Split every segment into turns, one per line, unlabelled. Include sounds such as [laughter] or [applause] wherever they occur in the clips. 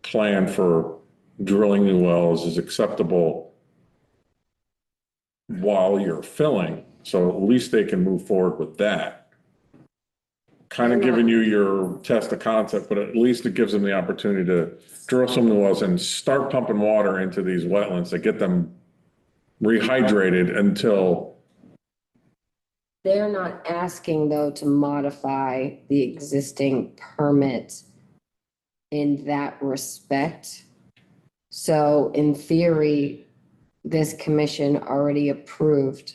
plan for drilling new wells is acceptable while you're filling, so at least they can move forward with that. Kind of giving you your test of concept, but at least it gives them the opportunity to drill some new wells and start pumping water into these wetlands to get them rehydrated until,
They're not asking though to modify the existing permit in that respect. So in theory, this commission already approved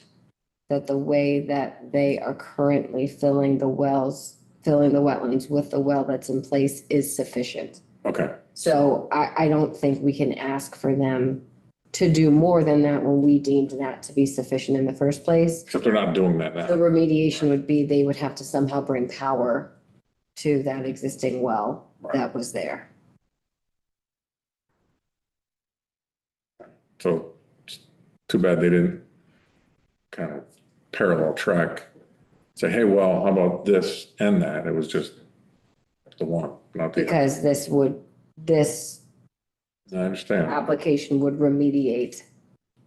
that the way that they are currently filling the wells, filling the wetlands with the well that's in place is sufficient.
okay,
So I, I don't think we can ask for them to do more than that when we deemed that to be sufficient in the first place.
except they're not doing that
The
now.
remediation would be they would have to somehow bring power to that existing well that was there.
So it's too bad they didn't kind of parallel track, say, hey, well, how about this and that? It was just the one, not the other.
Because this would, this
I understand.
application would remediate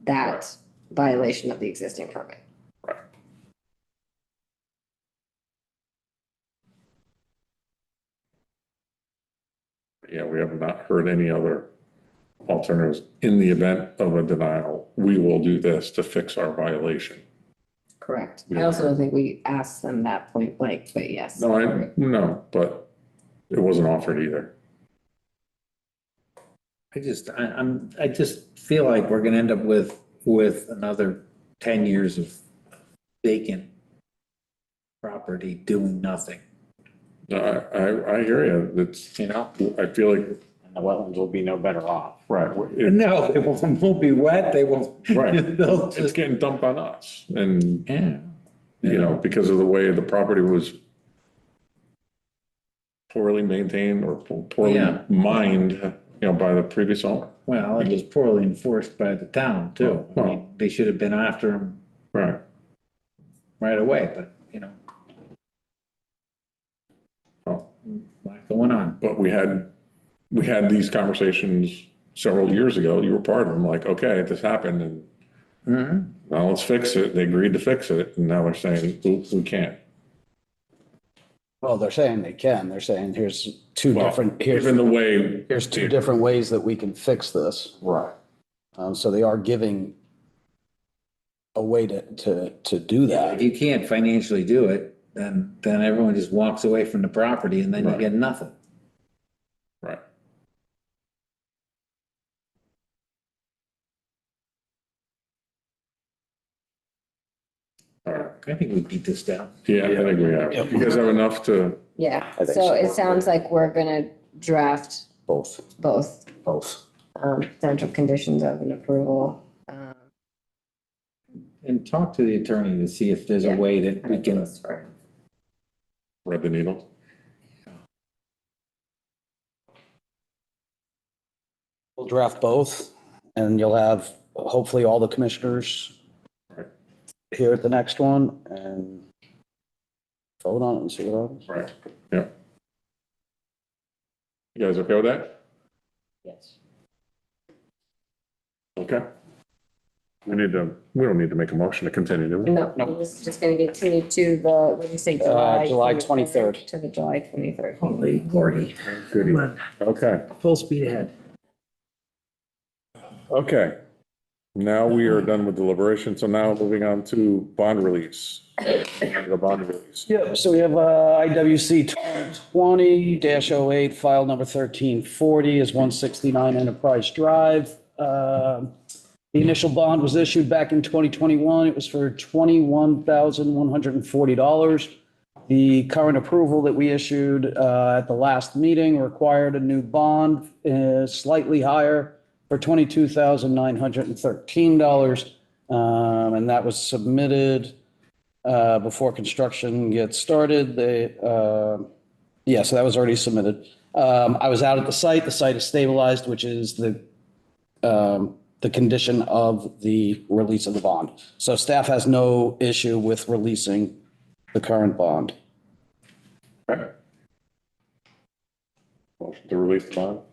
that violation of the existing permit.
Yeah, we have not heard any other alternatives. In the event of a denial, we will do this to fix our violation.
Correct. I
Yeah.
also don't think we asked them that point blank, but yes.
No, I, no, but it wasn't offered either.
I just, I, I'm, I just feel like we're gonna end up with, with another ten years of vacant property doing nothing,
No, I, I, I hear you. It's,
you know?
I feel like,
and the wetlands will be no better off.
right, it-
No, they won't, won't be wet, they won't.
Right.
[laughs] They'll
it's
just,
getting dumped on us and
yeah.
you know, because of the way the property was poorly maintained or poorly
Yeah.
mined, you know, by the previous owner.
Well, it was poorly enforced by the town too. I mean, They should have been after them
Right.
right away, but, you know.
Oh.
Lot going on.
But we had, we had these conversations several years ago. You were part of them, like, okay, this happened and
Mhm.
now let's fix it. They agreed to fix it. And now they're saying, oops, we can't.
Well, they're saying they can. They're saying here's two
Well,
different,
Given
here's,
the way.
here's two different ways that we can fix this.
Right.
Um, so they are giving a way to, to, to do
If
that.
you can't financially do it, then, then everyone just walks away from the property and then you
Right.
get nothing.
Right. All right.
I think we beat this down.
Yeah, I think we have. You guys have enough to,
Yeah,
I think
so
so.
it sounds like we're gonna draft
Both,
both
both.
um, potential conditions of an approval. um,
And talk to the attorney to see if there's a
Yeah.
way that we can,
thread the needle.
We'll draft both and you'll have hopefully all the commissioners
Right.
here at the next one and vote on it and see what happens.
Right. Yeah. You guys okay with that?
Yes.
Okay. We need to, we don't need to make a motion to continue, do we?
No,
No.
this is just gonna continue to the, what did you say, July?
July 23rd.
To the July twenty-third.
Holy Gordy.
Goody.
Come on,
Okay,
full speed ahead.
okay. Now we are done with deliberation, so now moving on to bond release. The bond release.
Yep, so we have uh, IWC 20-08, file number 1340 is 169 Enterprise Drive. Uh, The initial bond was issued back in 2021. It was for $21,140. The current approval that we issued uh, at the last meeting required a new bond uh, slightly higher for $22,913. Um, And that was submitted uh, before construction gets started. They, uh, yeah, so that was already submitted. Um, I was out at the site. The site is stabilized, which is the, um, the condition of the release of the bond. So staff has no issue with releasing the current bond.
Motion to release the bond?